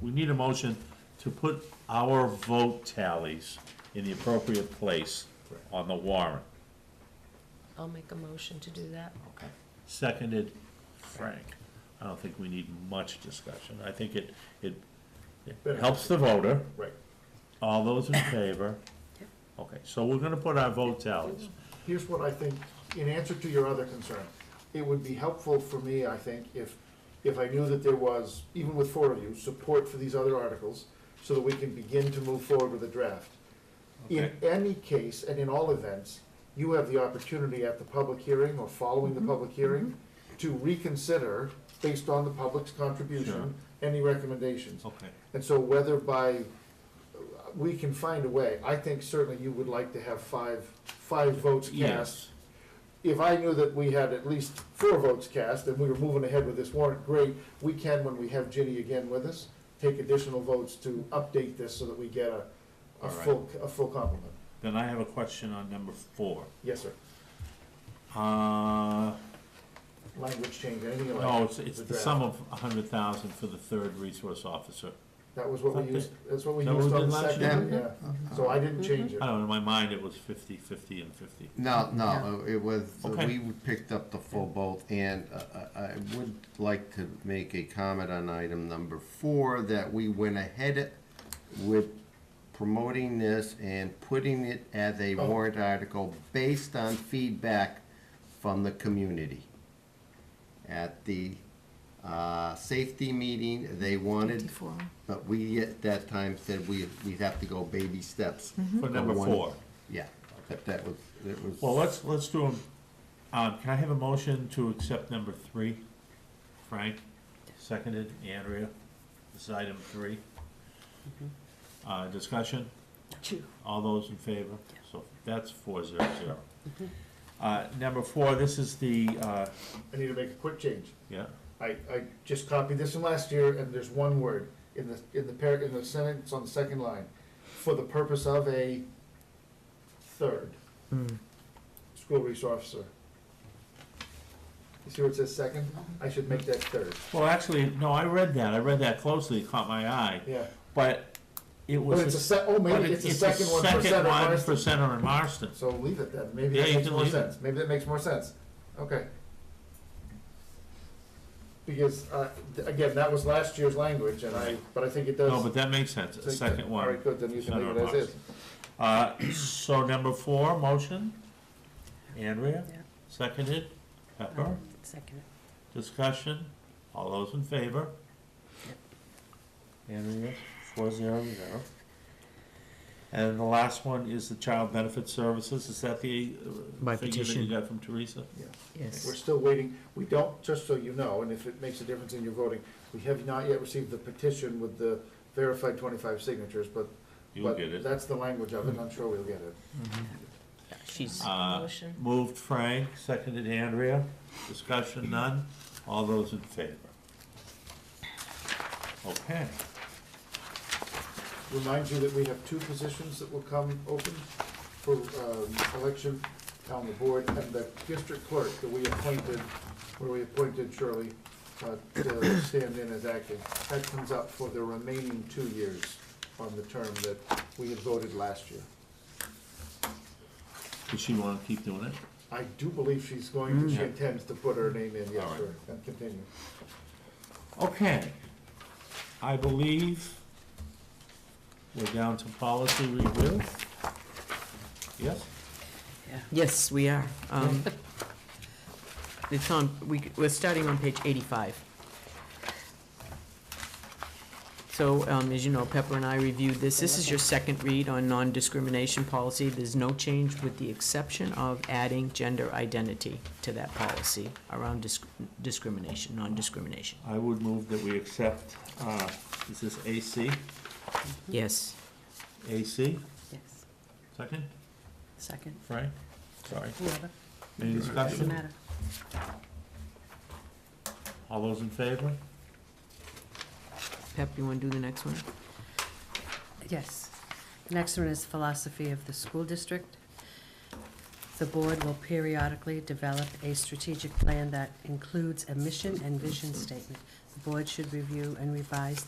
we need a motion to put our vote tallies in the appropriate place on the warrant. I'll make a motion to do that. Okay. Seconded Frank. I don't think we need much discussion. I think it, it it helps the voter. Right. All those in favor? Okay, so we're gonna put our vote tallies. Here's what I think, in answer to your other concern, it would be helpful for me, I think, if, if I knew that there was, even with four of you, support for these other articles, so that we can begin to move forward with the draft. In any case, and in all events, you have the opportunity at the public hearing or following the public hearing to reconsider, based on the public's contribution, any recommendations. Okay. And so whether by, we can find a way, I think certainly you would like to have five, five votes cast. Yes. If I knew that we had at least four votes cast and we were moving ahead with this warrant, great, we can, when we have Ginny again with us, take additional votes to update this so that we get a, a All right. full, a full complement. Then I have a question on number four. Yes, sir. Uh, Language change, anything you like. no, it's, it's The the draft. sum of a hundred thousand for the third resource officer. That was what we Okay. used, that's what we That what used we on did the last Uh. second, yeah. So I didn't change it. I don't know, in my mind, it was fifty, fifty, and fifty. No, no, it was, uh, Okay. we picked up the full boat, and uh, I I would like to make a comment on item number four, that we went ahead with promoting this and putting it as a Oh. warrant article based on feedback from the community. At the uh, safety meeting, they wanted, but we at that time said we, we'd have to go baby steps. For number one- four. Yeah, but that was, it was. Mm-hmm. Well, let's, let's do them. Um, can I have a motion to accept number three? Frank, seconded, Andrea, this is item three. Mm-hmm. Uh, discussion? Two. All those in favor? So that's four zero zero. Uh, number four, this is the, uh, I need to make a quick change. yeah, I, I just copied this from last year, and there's one word in the, in the par, in the sentence on the second line, for the purpose of a third school resource officer. You see where it says second? I should make that third, well, actually, no, I read that, I read that closely, it caught my eye, yeah. but it was. But it's a se, oh, but it- maybe it's a second one for second center one Marston. for Center and Marston. So leave it then, maybe Yeah, that you makes can more leave it. sense, maybe that makes more sense, okay. Because, uh, th- again, that was last year's language, and I, but I think it does. No, but that makes sense, a take second that- one. All right, good, then you can Center leave and it as is. Marston. Uh, so number four, motion, Andrea, Yeah. Uh-huh. seconded, Pepper, Second. discussion, all those in favor? Andrea, four zero zero. And the last one is the child benefit services, is that the uh, By figure that you petition. got from Teresa? We're Yes. still waiting, we don't, just so you know, and if it makes a difference in your voting, we have not yet received the petition with the verified twenty-five signatures, but. You'll but get it. That's the language of it, I'm sure we'll get it. She's. Uh, Motion. Moved Frank, seconded Andrea, discussion none, all those in favor? Okay, Remind you that we have two positions that will come open for, um, election on the board, and the district clerk that we appointed, where we appointed Shirley, uh, to stand in as acting. That comes up for the remaining two years on the term that we had voted last year. does she wanna keep doing it? I do believe she's going to, she intends to put her name in, yes, Mm. All right. sir, and continue. Okay. I believe we're down to policy review. Yes? Yes, we are. Um, It's on, we, we're starting on page 85. So, um, as you know, Pepper and I reviewed this. This is your second read on non-discrimination policy. There's no change with the exception of adding gender identity to that policy around dis- discrimination, non-discrimination. I would move that we accept, uh, is this AC? Yes. AC, Yes. second, Second. Frank? Sorry. Whoever. Any Doesn't discussion? matter. All those in favor? Pep, you want to do the next one? Yes. Next one is philosophy of the school district. The board will periodically develop a strategic plan that includes a mission and vision statement. The board should review and revise